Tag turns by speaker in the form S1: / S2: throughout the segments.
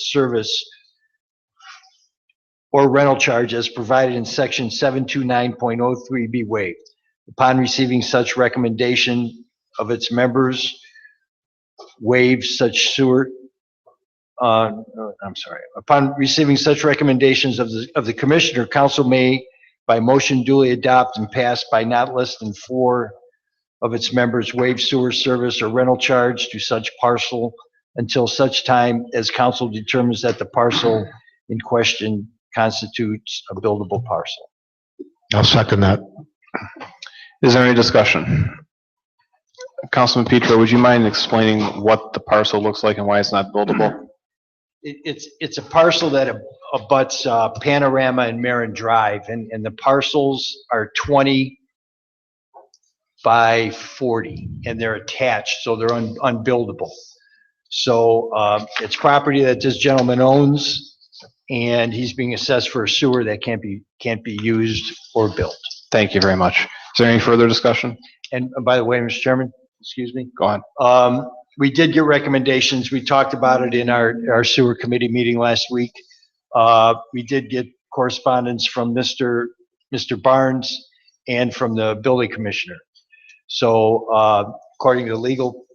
S1: service or rental charge as provided in section 729.03 be waived. Upon receiving such recommendation of its members, waive such sewer, uh, I'm sorry, upon receiving such recommendations of the, of the commissioner, council may by motion duly adopt and pass by not less than four of its members waive sewer service or rental charge to such parcel until such time as council determines that the parcel in question constitutes a buildable parcel.
S2: I'll second that.
S3: Is there any discussion? Councilman Petro, would you mind explaining what the parcel looks like and why it's not buildable?
S1: It, it's, it's a parcel that abuts uh, Panorama and Marin Drive, and, and the parcels are 20 by 40, and they're attached, so they're un- unbuildable. So um, it's property that this gentleman owns, and he's being assessed for a sewer that can't be, can't be used or built.
S3: Thank you very much. Is there any further discussion?
S1: And uh, by the way, Mr. Chairman, excuse me,
S3: Go ahead.
S1: Um, We did get recommendations. We talked about it in our, our sewer committee meeting last week. Uh, We did get correspondence from Mr., Mr. Barnes and from the building commissioner. So uh, according to legal,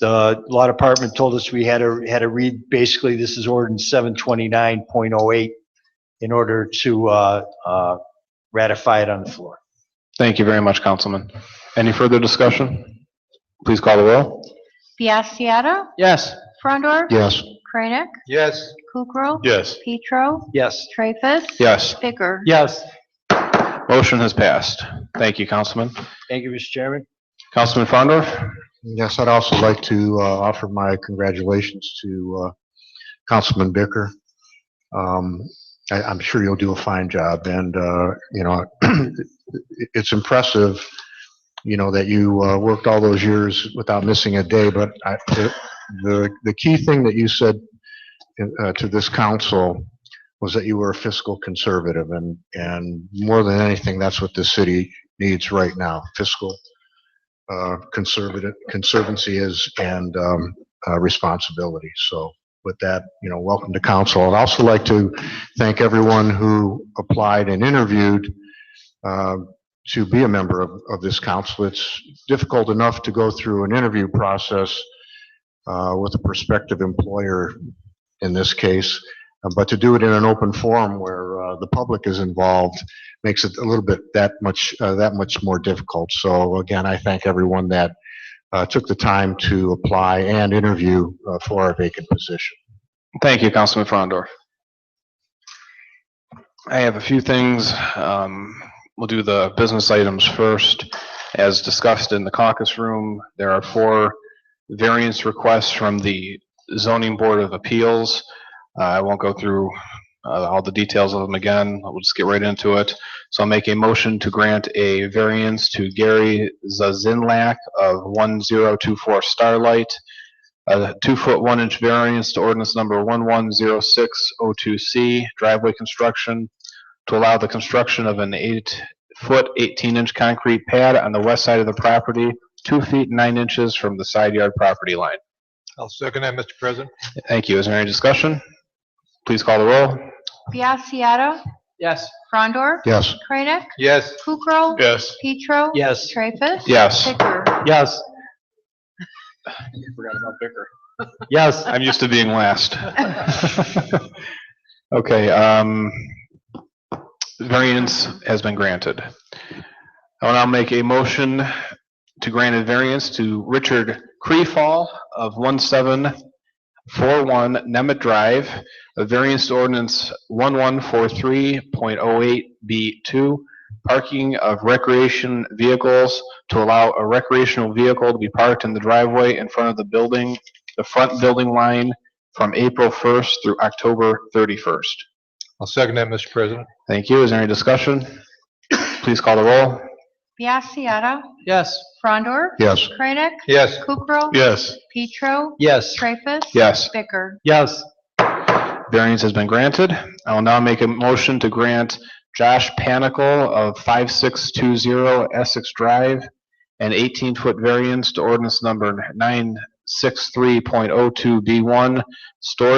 S1: the law department told us we had to, had to read, basically, this is ordinance 729.08 in order to uh, uh, ratify it on the floor.
S3: Thank you very much, Councilman. Any further discussion? Please call the roll.
S4: Biassiata.
S3: Yes.
S4: Frondor.
S2: Yes.
S4: Kranek.
S3: Yes.
S4: Kukrow.
S2: Yes.
S4: Petro.
S1: Yes.
S4: Traffus.
S3: Yes.
S4: Bicker.
S3: Yes. Motion has passed. Thank you, Councilman.
S1: Thank you, Mr. Chairman.
S3: Councilman Frondor?
S2: Yes, I'd also like to uh, offer my congratulations to uh, Councilman Bicker. Um, I- I'm sure you'll do a fine job, and, uh, you know, it- it's impressive, you know, that you uh, worked all those years without missing a day, but I- the- the the key thing that you said uh, to this council was that you were a fiscal conservative, and and more than anything, that's what the city needs right now, fiscal uh, conservative, conservancy is and um, uh, responsibility. So with that, you know, welcome to council. I'd also like to thank everyone who applied and interviewed um, to be a member of, of this council. It's difficult enough to go through an interview process uh, with a prospective employer in this case, uh, but to do it in an open forum where uh, the public is involved makes it a little bit that much, uh, that much more difficult. So again, I thank everyone that uh, took the time to apply and interview uh, for our vacant position.
S3: Thank you, Councilman Frondor. I have a few things. Um, We'll do the business items first. As discussed in the caucus room, there are four variance requests from the Zoning Board of Appeals. Uh, I won't go through uh, all the details of them again. We'll just get right into it. So I'll make a motion to grant a variance to Gary Zazinlak of 1024 Starlight a two-foot, one-inch variance to ordinance number 110602C driveway construction to allow the construction of an eight-foot, 18-inch concrete pad on the west side of the property, two feet, nine inches from the side yard property line.
S5: I'll second that, Mr. President.
S3: Thank you. Is there any discussion? Please call the roll.
S4: Biassiata.
S5: Yes.
S4: Frondor.
S2: Yes,
S4: Kranek.
S5: Yes.
S4: Kukrow.
S5: Yes.
S4: Petro.
S1: Yes.
S4: Traffus.
S3: Yes.
S4: Bicker.
S5: Yes. Yes.
S3: I'm used to being last. Okay, um, variance has been granted. I will now make a motion to grant a variance to Richard Creefall of 1741 Nemet Drive, a variance to ordinance 1143.08B2, parking of recreation vehicles to allow a recreational vehicle to be parked in the driveway in front of the building, the front building line from April 1st through October 31st.
S5: I'll second that, Mr. President.
S3: Thank you. Is there any discussion? Please call the roll.
S4: Biassiata.
S5: Yes.
S4: Frondor.
S2: yes,
S4: Kranek.
S5: Yes.
S4: Kukrow.
S5: Yes.
S4: Petro.
S1: Yes.
S4: Traffus.
S3: Yes,
S4: Bicker.
S5: Yes.
S3: variance has been granted. I will now make a motion to grant Josh Panicle of 5620 Essex Drive an 18-foot oh variance to ordinance number 963.02B1, storage